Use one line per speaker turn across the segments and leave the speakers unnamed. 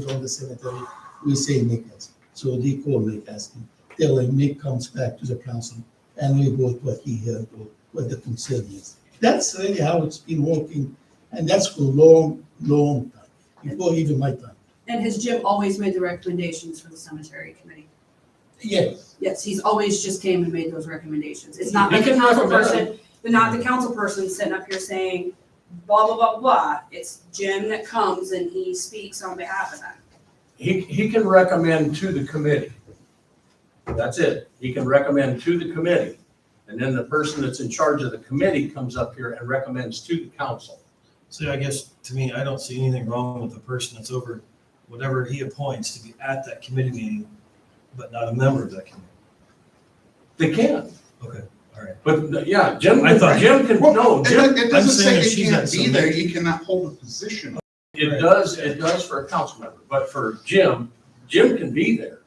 from the cemetery, we say Nick has. So they call Nick asking, they're like, Nick comes back to the council and we vote what he heard or what the concern is. That's really how it's been working, and that's for a long, long time, before even my time.
And has Jim always made the recommendations for the cemetery committee?
Yes,
Yes, he's always just came and made those recommendations. It's not
He
like the
can
council
recommend.
person, but not the council person sitting up here saying blah, blah, blah, blah. It's Jim that comes and he speaks on behalf of them.
He, he can recommend to the committee. That's it. He can recommend to the committee. And then the person that's in charge of the committee comes up here and recommends to the council.
So I guess to me, I don't see anything wrong with the person that's over whatever he appoints to be at that committee meeting, but not a member of that committee.
They can,
Okay, all right.
but yeah, Jim,
I thought-
Jim can, no,
Well, it
Jim,
doesn't- it
I'm
doesn't
saying
say
if
they
she's
can't
at
be
some Oh,
there,
meeting-
you cannot hold a position.
it does, it does for a council member, but for Jim, Jim can be there.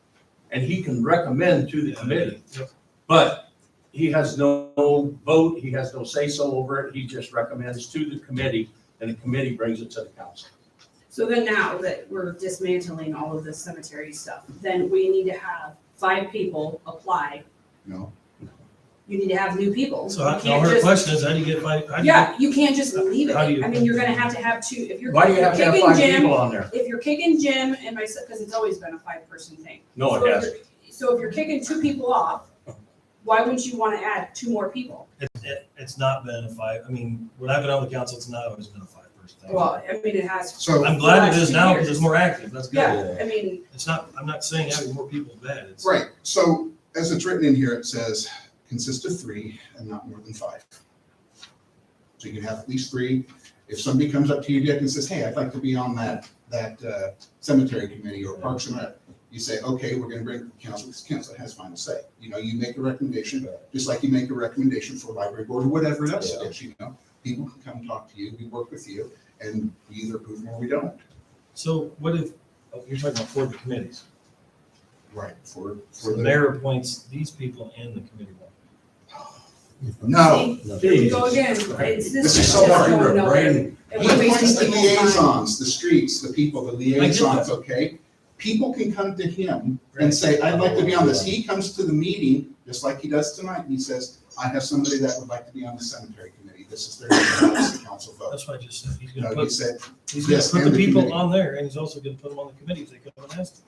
And he can recommend to the committee,
Yep.
but he has no vote, he has no say-so over it. He just recommends to the committee and the committee brings it to the council.
So then now that we're dismantling all of this cemetery stuff, then we need to have five people apply.
No.
You need to have new people.
So I-
You
now
can't
her
just-
question is, how do you get by? how do you-
Yeah, you can't just leave it.
How do you-
I mean, you're gonna have to have two, if you're
Why do you have to have
kicking
five
Jim,
people on there?
if you're kicking Jim and myself, because it's always been a five-person thing.
No,
So
it
if
hasn't.
you're- So if you're kicking two people off, why wouldn't you want to add two more people?
It, it, it's not been a five, I mean, when I've been on the council, it's not always been a five person thing.
Well, I mean, it has,
So,
I'm glad it is now because it's more active, that's good.
yeah, I mean,
It's not, I'm not saying having more people is bad, it's.
right, so as it's written in here, it says consist of three and not more than five. So you can have at least three. If somebody comes up to you, Dick, and says, hey, I'd like to be on that, that uh, cemetery committee or Parks and Rec, you say, okay, we're gonna bring it to council, because council has final say. You know, you make a recommendation, just like you make a recommendation for a library board or whatever else it is, you know? People can come talk to you, we work with you, and we either approve them or we don't.
So what if, oh, you're talking about for the committees,
Right, for,
so
for
the
the.
mayor appoints these people and the committee. one.
No.
here we go again. It's this.
This is
is
so
just
hard.
going
You're a
nowhere.
brain-
And
He
we're wasting
appoints the
people's time.
liaisons, the streets, the people, the
that.
liaisons, okay? People can come to him and say, I'd like to be on this. He comes to the meeting, just like he does tonight, and he says, I have somebody that would like to be on the cemetery committee. This is their, this is the council vote.
That's why I just said, he's gonna
No, he
put
said,
He's gonna
Yes,
put
and
the
the
people
committee.
on there, and he's also gonna put them on the committee if they come and ask. them.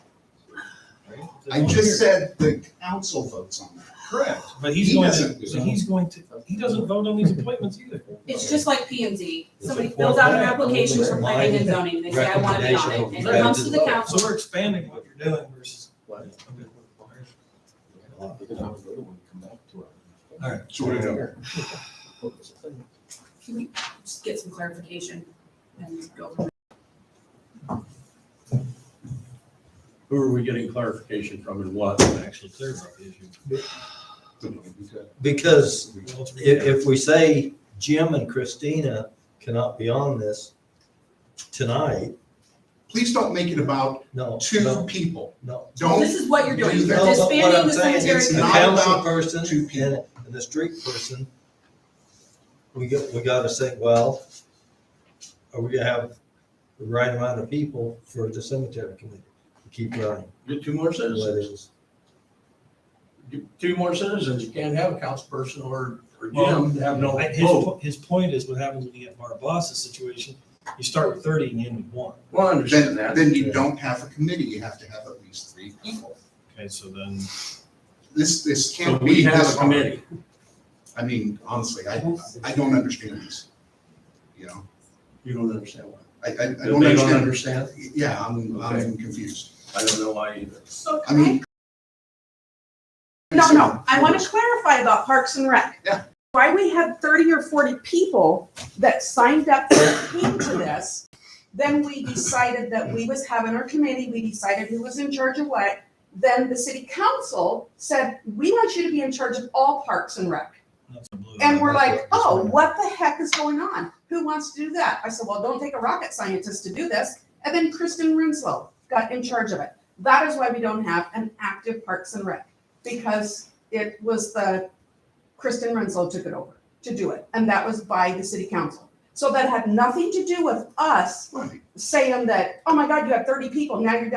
Right? If they
I
don't
just
hear.
said the council votes on that. Correct.
But he's
he
going
doesn't do
to, but
that.
he's going to, he doesn't vote on these appointments either.
It's just like P and Z.
It's
Somebody
a
fills out an
form.
application for planning and zoning, they say, I want to be on it, and it comes to the
So
council.
we're expanding what you're doing versus.
What?
Okay.
All
All right.
So what do you know?
Can we just get some clarification and go from
Who are we getting clarification from and what?
I'm actually clear about the issue.
Because
Well, it's-
if, if we say Jim and Christina cannot be on this tonight,
Please don't make it about
no,
two
no,
people.
no.
there?
Don't
This is what you're doing,
do
you're
that.
No, but what
disbanding
I'm
the
saying is
cemetery.
It's
The
not
committee.
council
about
person
two
and,
people.
and the street person, we got, we gotta say, well, are we gonna have the right amount of people for the cemetery committee to keep running?
Get two more
the way it
citizens.
is?
Get Two more citizens. You can't have a council person or, or
Well,
Jim to have no
I- His,
vote.
po- his point is what happens when you get Barabas's situation, you start with thirty and you end with one.
Well, I
Then,
understand that.
then you don't have a committee. You have to have at least three people.
Okay, so then,
This, this
So
can't be.
we have
this
a
hard.
committee.
I mean, honestly, I, I don't understand this, you know?
You don't understand why.
I, I, I
They
don't understand.
understand.
Yeah, I'm, I'm
Okay.
confused.
I don't know why either.
So
I
can I,
mean.
no, no, I want to clarify about Parks and Rec.
Yeah.
Why we had thirty or forty people that signed up that came to this, then we decided that we was having our committee, we decided who was in charge of what. Then the city council said, we want you to be in charge of all Parks and Rec.
that's a blue.
And we're like, oh, what the heck is going on? Who wants to do that? I said, well, don't take a rocket scientist to do this. And then Kristen Rinslow got in charge of it. That is why we don't have an active Parks and Rec, because it was the, Kristen Rinslow took it over to do it, and that was by the city council. So that had nothing to do with us
Right.
saying that, oh my God, you have thirty people, now you're down